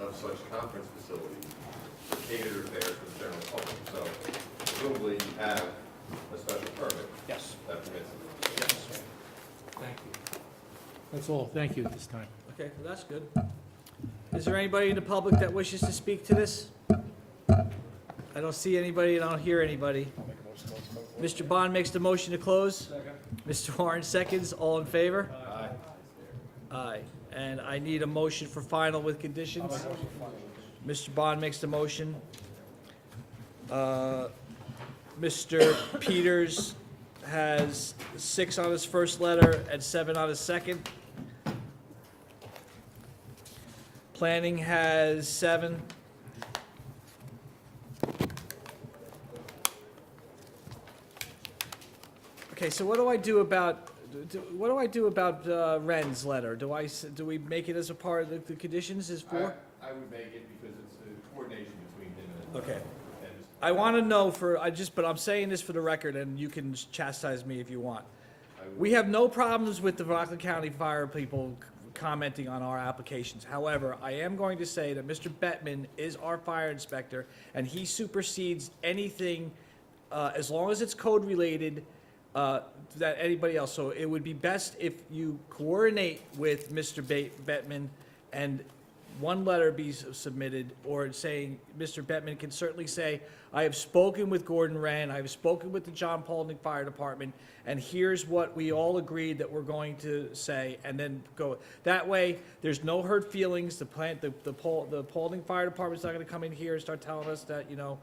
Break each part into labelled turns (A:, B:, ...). A: of such conference facilities to cater there to the general public. So presumably you have a special permit
B: Yes,
A: that permits it.
B: yes.
C: Thank you. That's all, thank you at this time.
B: Okay, well, that's good. Is there anybody in the public that wishes to speak to this? I don't see anybody, and I don't hear anybody. Mr. Bond makes the motion to close. Mr. Warren seconds, all in favor? Aye. Aye, and I need a motion for final with conditions. Mr. Bond makes the motion. Uh, Mr. Peters has six on his first letter and seven on his second. Planning has seven. Okay, so what do I do about, do- what do I do about uh, Ren's letter? Do I, s- do we make it as a part of the, the conditions is four?
A: I, I would make it because it's a coordination between him and.
B: Okay.
A: and his-
B: I want to know for, I just, but I'm saying this for the record, and you can chastise me if you want.
A: I would-
B: We have no problems with the Rockland County Fire people c- commenting on our applications. However, I am going to say that Mr. Bettman is our fire inspector, and he supersedes anything, uh, as long as it's code-related, uh, that anybody else. So it would be best if you coordinate with Mr. Ba- Bettman, and one letter be s- submitted, or saying, Mr. Bettman can certainly say, I have spoken with Gordon Rand, I have spoken with the John Paulding Fire Department, and here's what we all agreed that we're going to say, and then go. That way, there's no hurt feelings, the plant, the, the Paul, the Paulding Fire Department's not gonna come in here and start telling us that, you know,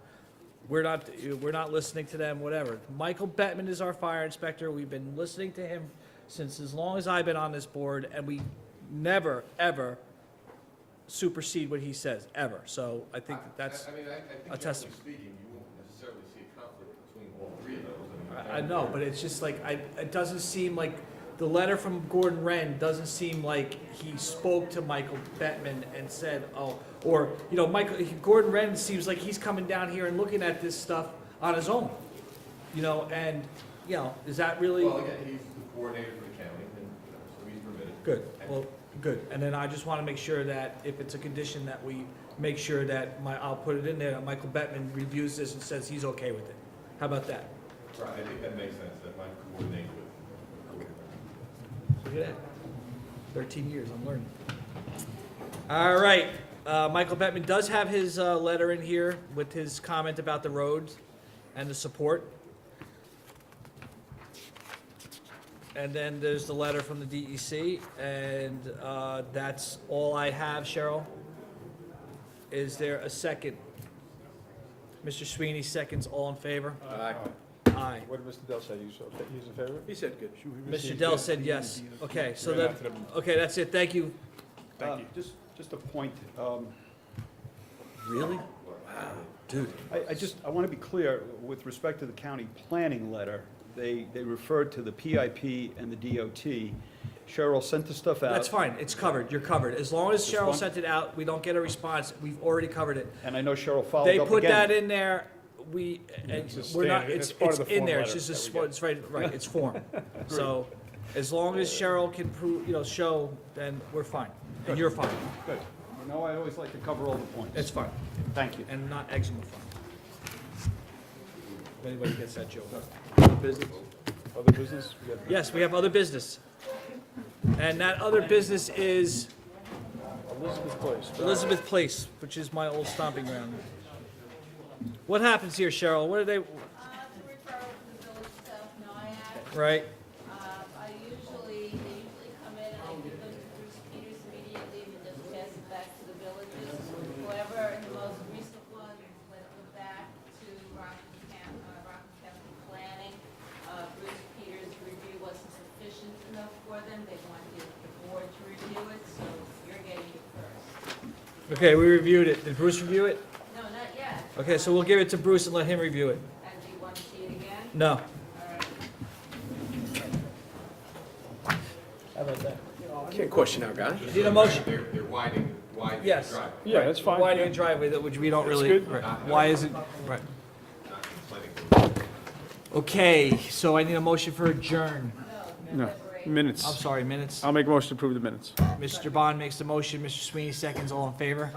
B: we're not, we're not listening to them, whatever. Michael Bettman is our fire inspector. We've been listening to him since as long as I've been on this board, and we never, ever supersede what he says, ever. So I think that that's,
A: I I mean, I, I think
B: a
A: generally
B: testament.
A: speaking, you won't necessarily see a conflict between all three of those. mean,
B: I I know, but it's just like, I, it doesn't seem like, the letter from Gordon Wren doesn't seem like he spoke to Michael Bettman and said, oh, or, you know, Michael, Gordon Wren seems like he's coming down here and looking at this stuff on his own. You know, and, you know, is that really?
A: Well, again, he's the coordinator for the county, and, you know, so he's permitted.
B: Good, well, good, and then I just wanna make sure that if it's a condition that we make sure that my, I'll put it in there, that Michael Bettman reviews this and says he's okay with it. How about that?
A: Right, I think that makes sense, that might coordinate with.
B: Look at that, thirteen years, I'm learning. All right, uh, Michael Bettman does have his, uh, letter in here with his comment about the roads and the support. And then there's the letter from the DEC, and, uh, that's all I have, Cheryl. Is there a second? Mr. Sweeney seconds, all in favor? Aye.
D: What did Mr. Dell say? He's, okay- he's in favor? He said good.
B: Mr. Dell said yes. Okay, so that, okay, that's it, thank you.
D: Thank you. Uh, Just, just a point. um,
B: Really? Dude.
D: I, I just, I want to be clear, with respect to the county planning letter, they, they referred to the PIP and the DOT. Cheryl sent the stuff out.
B: That's fine, it's covered, you're covered. As long as Cheryl
D: Respond-
B: sent it out, we don't get a response, we've already covered it.
D: And I know Cheryl followed up
B: They
D: again.
B: put that in there, we, and
E: It's a
B: we're not,
E: standard-
B: it's,
E: it's part
B: it's
E: of the
B: in
E: form
B: there, it's
E: letter
B: just, a
E: that we
B: spo- it's right, right, it's form. So, as long as Cheryl can prove, you know, show, then we're fine, and you're fine,
D: Good. You know, I always like to cover all the points.
B: it's fine,
D: Thank you.
B: and not eczema fine. If anybody gets that joke.
E: Other business? We got
B: Yes, we have other business. And that other business is
E: Elizabeth Place.
B: Elizabeth Place, which is my old stomping ground. What happens here, Cheryl? What are they,
F: Uh, it's a referral from the village of South Nyack.
B: right?
F: Uh, I usually, they usually come in and I give them to Bruce Peters immediately and just pass it back to the villages. However, in the most recent one, when it went back to Rockland County, uh, Rockland County Planning, uh, Bruce Peters' review wasn't sufficient enough for them. They wanted the board to review it, so you're getting it first.
B: Okay, we reviewed it. Did Bruce review it?
F: No, not yet.
B: Okay, so we'll give it to Bruce and let him review it.
F: And do you want to see it again?
B: No.
F: All right.
B: How about that?
E: Can't question our guy.
B: Need a motion?
A: They're, they're widening, widening the
B: Yes.
A: driveway,
E: Yeah, that's fine.
B: Why do you driveway that which we don't
E: It's
B: really?
E: good.
B: right. Why is it? Right.
A: not complaining.
B: Okay, so I need a motion for adjourn.
E: No,
B: I'm
E: minutes.
B: sorry, minutes.
E: I'll make a motion to approve the minutes.
B: Mr. Bond makes the motion, Mr. Sweeney seconds, all in favor?